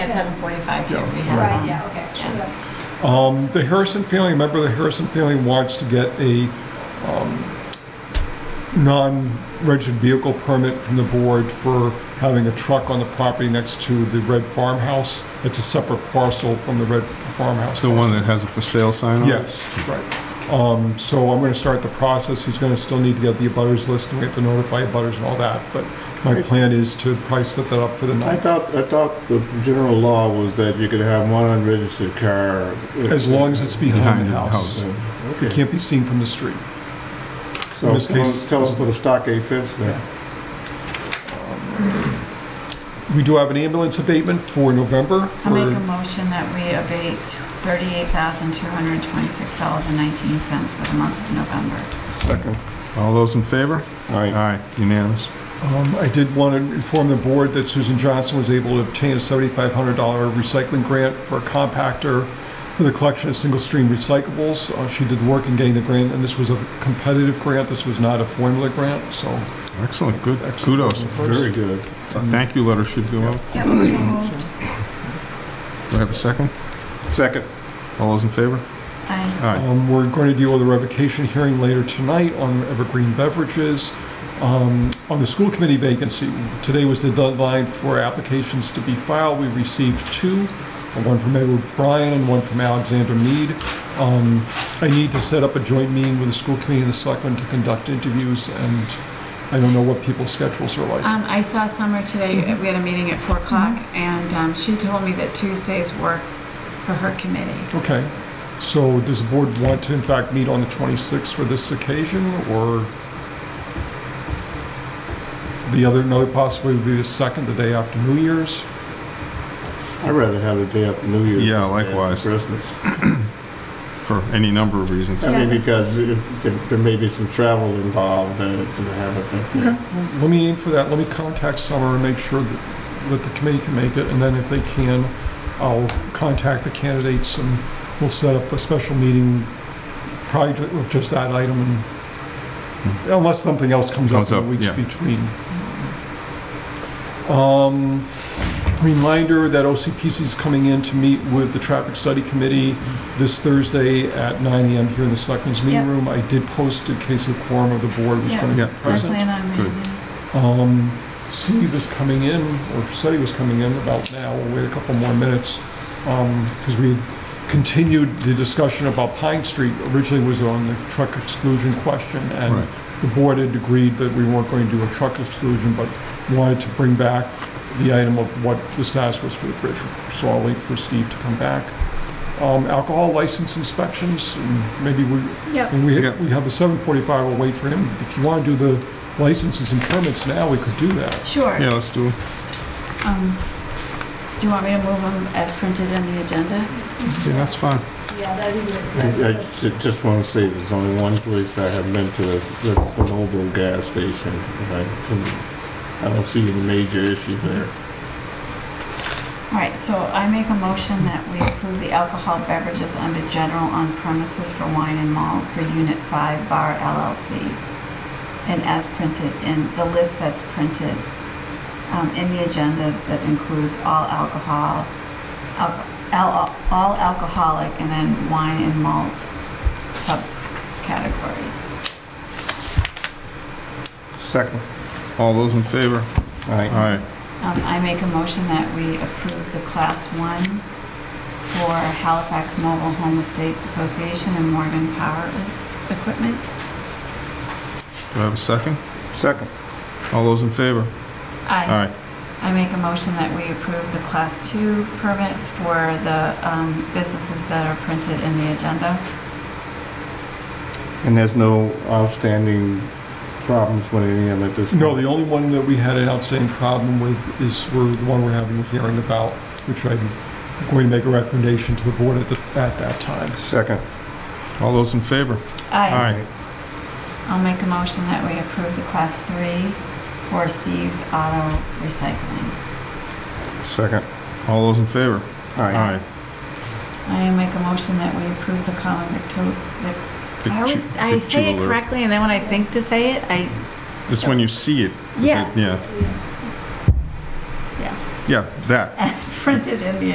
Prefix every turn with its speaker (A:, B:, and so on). A: 7:45 too.
B: Yeah,
A: We
B: right.
A: have,
C: Right,
A: um,
C: yeah, okay, sure. yeah.
B: Um, the Harrison family, member of the Harrison family wants to get a um, non-registered vehicle permit from the board for having a truck on the property next to the red farmhouse. It's a separate parcel from the red farmhouse.
D: The one that has a for sale sign on it?
B: Yes, right. Um, so I'm gonna start the process, he's gonna still need to get the abutters list, and we have to notify abutters and all that, but my plan is to price set that up for the
E: I
B: night,
E: thought, I thought the general law was that you could have one unregistered car.
B: as long as it's behind the house. It
E: Okay.
B: can't be seen from the street.
E: So
B: in this
E: tell
B: case-
E: us- tell us put a stockade fence there.
B: We do have an ambulance abatement for November.
A: I'll make a
B: for-
A: motion that we abate $38,226.19 for the month of November.
E: Second.
D: All those in favor?
E: Aye.
D: Aye, unanimous.
B: Um, I did want to inform the board that Susan Johnson was able to obtain a $7,500 recycling grant for a compactor for the collection of single-stream recyclables. Uh, She did work in getting the grant, and this was a competitive grant. This was not a formula grant, so
D: Excellent, good,
B: excellent.
D: kudos.
E: Very good.
D: A thank you letter should go out.
A: Yep, so moved.
D: Do I have a second?
E: Second.
D: All those in favor?
A: Aye.
D: Aye.
B: Um, We're going to deal with a revocation hearing later tonight on Evergreen Beverages. Um, On the school committee vacancy, today was the deadline for applications to be filed. We received two, one from Edward Bryan and one from Alexander Mead. Um, I need to set up a joint meeting with the school committee and the selectmen to conduct interviews, and I don't know what people's schedules are like.
F: Um, I saw Summer today,
A: uh,
F: we had a meeting at four o'clock,
C: Mm-hmm.
F: and, um, she told me that Tuesdays work for her committee.
B: Okay, so does the board want to in fact meet on the 26th for this occasion, or the other, another possibility would be the second, the day after New Year's?
E: I'd rather have the day after New Year's.
D: Yeah,
E: than
D: likewise.
E: Christmas.
D: For any number of reasons.
E: I mean,
F: Yeah.
E: because it- it- there may be some travel involved and it's gonna have a.
B: Okay, let me aim for that, let me contact Summer and make sure that, that the committee can make it, and then if they can, I'll contact the candidates and we'll set up a special meeting, probably ju- with just that item, and unless something else comes up
D: Comes
B: in the
D: up,
B: weeks
D: yeah.
B: between. Um, reminder that OCPC is coming in to meet with the Traffic Study Committee this Thursday at 9 AM here in the Selectmen's Meeting
A: Yeah.
B: Room. I did post in case the quorum of the board was
A: Yeah.
B: going to
D: Yeah.
B: be
A: I
B: present.
A: plan on
D: Good.
A: meeting.
B: Um, Steve is coming in, or said he was coming in about now, we'll wait a couple more minutes, because we continued the discussion about Pine Street, originally was on the truck exclusion question, and
D: Right.
B: the board had agreed that we weren't going to do a truck exclusion, but wanted to bring back the item of what the status was for the bridge, so I'll wait for Steve to come back. Um, Alcohol license inspections, and maybe we,
F: Yep.
B: and we,
D: Yeah.
B: we have a seven forty-five, we'll wait for him. If you wanna do the licenses and permits now, we could do that.
A: Sure.
D: Yeah, let's do it.
A: Um, s- Do you want me to move them as printed in the agenda?
D: Yeah, that's fine.
C: Yeah, that'd be
E: I I
C: good.
E: ju- just want to say there's only one place I have been to, that's the Noble gas station. and I couldn't- I don't see any major issue there.
A: All right, so I make a motion that we approve the alcohol beverages under general on premises for wine and malt for Unit 5 Bar LLC. And as printed in, the list that's printed um, in the agenda that includes all alcohol, al- al- all alcoholic and then wine and malt subcategories.
E: Second.
D: All those in favor?
E: Aye.
D: Aye.
A: Um, I make a motion that we approve the Class 1 for Halifax Mobile Home Estates Association and Morgan Power Equipment.
D: Do I have a second?
E: Second.
D: All those in favor?
A: I
D: Aye.
A: I make a motion that we approve the Class 2 permits for the um, businesses that are printed in the agenda.
E: And there's no outstanding problems with any of it at this point?
B: No, the only one that we had an outstanding problem with is we're, the one we're having a hearing about, which I'm going to make a recommendation to the board at, the- at that time.
E: Second.
D: All those in favor?
A: I
D: Aye.
A: I'll make a motion that we approve the Class 3 for Steve's Auto Recycling.
E: Second.
D: All those in favor?
E: Aye.
A: I make a motion that we approve the common victo-
D: Big
F: I
D: ju-
F: always, I
D: big
F: say it
D: jeweler.
F: correctly, and then when I think to say it, I,
D: It's when you see it.
F: yeah,
D: Yeah.
F: yeah.
D: Yeah, that.
A: as printed in the